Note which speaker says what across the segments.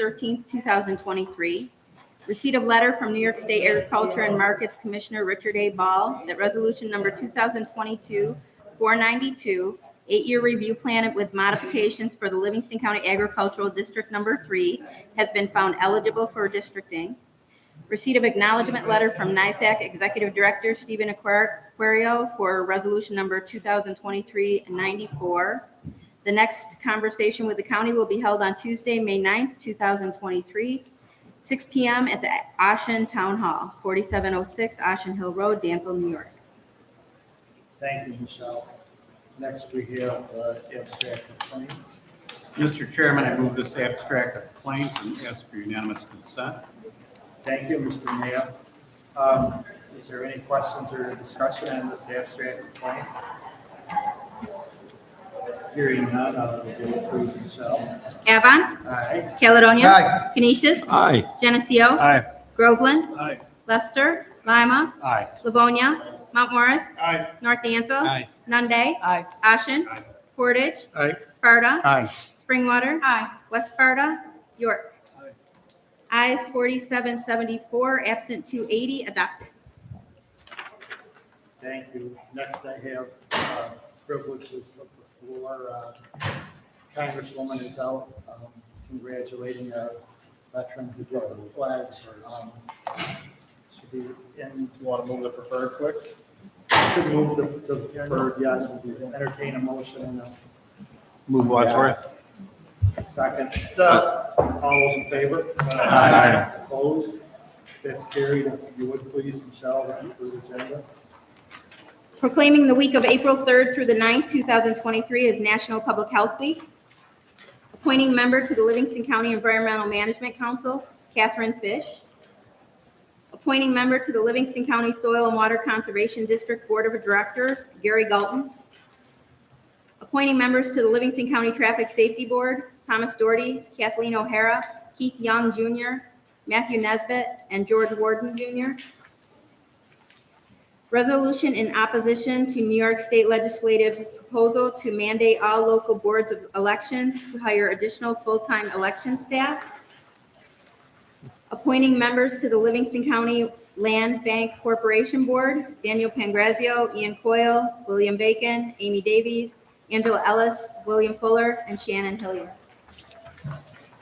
Speaker 1: 13th, 2023. Receipt of letter from New York State Agriculture and Markets Commissioner Richard A. Ball that resolution number 2022-492, eight-year review plan with modifications for the Livingston County Agricultural District Number 3 has been found eligible for districting. Receipt of acknowledgement letter from NISAC Executive Director Stephen Aquario for resolution number 2023-94. The next conversation with the county will be held on Tuesday, May 9th, 2023, 6 PM at the Ashen Town Hall, 4706 Ashen Hill Road, Danville, New York.
Speaker 2: Thank you, Michelle. Next, we have uh, abstract of claims.
Speaker 3: Mr. Chairman, I move this abstract of claims and ask for unanimous consent.
Speaker 2: Thank you, Mr. Mayor. Um, Is there any questions or discussion on this abstract of claims? Hearing none, uh, will you please, Michelle?
Speaker 1: Avon,
Speaker 2: Aye.
Speaker 1: Caledonia,
Speaker 2: Aye.
Speaker 1: Canisius,
Speaker 3: Aye.
Speaker 1: Geneseo,
Speaker 3: Aye.
Speaker 1: Groveland,
Speaker 3: Aye.
Speaker 1: Lester, Lima,
Speaker 3: Aye.
Speaker 1: Livonia, Mount Morris,
Speaker 3: Aye.
Speaker 1: North Dansville,
Speaker 3: Aye.
Speaker 1: Nunde,
Speaker 4: Aye.
Speaker 1: Ashen,
Speaker 3: Aye.
Speaker 1: Portage,
Speaker 3: Aye.
Speaker 1: Sparta,
Speaker 3: Aye.
Speaker 1: Springwater. Aye. West Sparta. York.
Speaker 3: Aye.
Speaker 1: Ayes forty-seven seventy-four, absent two eighty, adopted.
Speaker 2: Thank you. Next, I have uh, privileges of the floor. Uh, Congresswoman is out um, congratulating a veteran who broke the flags. or, um, Should be in,
Speaker 5: You want to move the preferred quick?
Speaker 2: should move the, the deferred, yes, entertain a motion and a
Speaker 3: Move Wadsworth.
Speaker 2: second.
Speaker 5: Uh,
Speaker 2: All those in favor?
Speaker 3: Aye.
Speaker 2: Opposed? That's carried. If you would please, Michelle, the approved agenda.
Speaker 1: Proclaiming the week of April third through the 9th, two thousand twenty-three as National Public Health Week. Appointing member to the Livingston County Environmental Management Council, Catherine Fish. Appointing member to the Livingston County Soil and Water Conservation District Board of Directors, Gary Galton. Appointing members to the Livingston County Traffic Safety Board, Thomas Doherty, Kathleen O'Hara, Keith Young Jr., Matthew Nesbitt, and George Warden Jr. Resolution in opposition to New York State legislative proposal to mandate all local boards of elections to hire additional full-time election staff. Appointing members to the Livingston County Land Bank Corporation Board, Daniel Pangrazio, Ian Coyle, William Bacon, Amy Davies, Angela Ellis, William Fuller, and Shannon Hillier.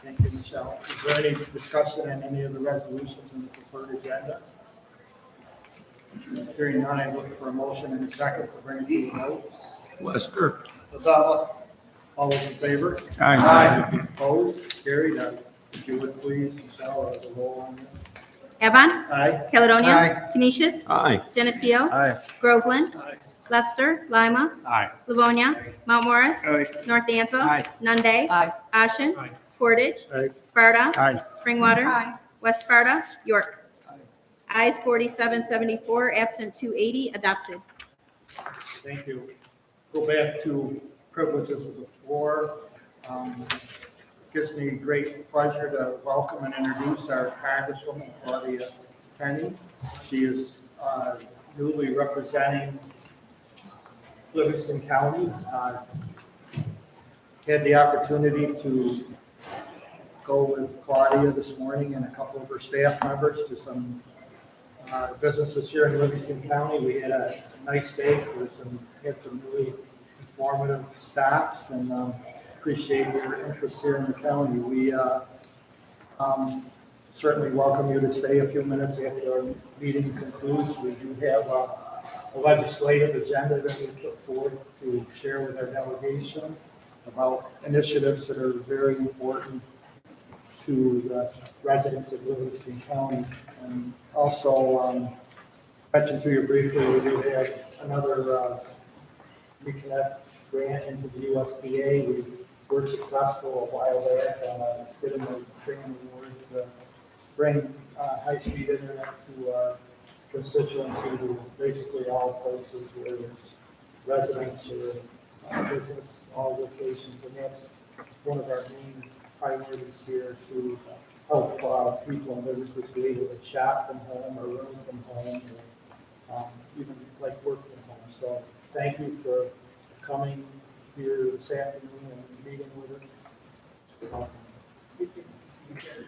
Speaker 2: Thank you, Michelle. Is there any discussion on any of the resolutions in the preferred agenda? Hearing none, I look for a motion and a second to bring it to a vote.
Speaker 3: Lester.
Speaker 2: Gonzalez, all those in favor? Opposed? Carried. Uh, If you would please, Michelle, as a roll on this.
Speaker 1: Evan,
Speaker 2: Aye.
Speaker 1: Caledonia, Canisius,
Speaker 3: Aye.
Speaker 1: Geneseo,
Speaker 3: Aye.
Speaker 1: Groveland, Lester, Lima,
Speaker 3: Aye.
Speaker 1: Livonia, Mount Morris,
Speaker 3: Aye.
Speaker 1: North Dansville,
Speaker 3: Aye.
Speaker 1: Nunde,
Speaker 4: Aye.
Speaker 1: Ashen,
Speaker 3: Aye.
Speaker 1: Portage,
Speaker 2: Aye.
Speaker 1: Sparta,
Speaker 3: Aye.
Speaker 1: Springwater, West Sparta, York. Ayes forty-seven seventy-four, absent two eighty, adopted.
Speaker 2: Thank you. Go back to privileges of the floor. Um, Gives me great pleasure to welcome and introduce our Congresswoman Claudia Tenney. She is uh, newly representing Livingston County. Uh, Had the opportunity to go with Claudia this morning and a couple of her staff members to some uh, businesses here in Livingston County. We had a nice day with some, had some really informative stops and um, appreciate your interest here in the county. We uh, um, certainly welcome you to stay a few minutes after our meeting concludes. We do have uh, a legislative agenda that we put forward to share with our delegation about initiatives that are very important to the residents of Livingston County. And also, um, mention to you briefly, we do have another, uh, reconnect grant into the USDA. We were successful a while back, uh, getting a grant award to bring, uh, high-speed internet to, uh, constituency to basically all places where there's residents or uh, business, all locations, and that's one of our main priorities here to help uh, people and businesses be able to shop from home or room from home, or um, even like work from home. So thank you for coming here this afternoon and meeting with us. Um,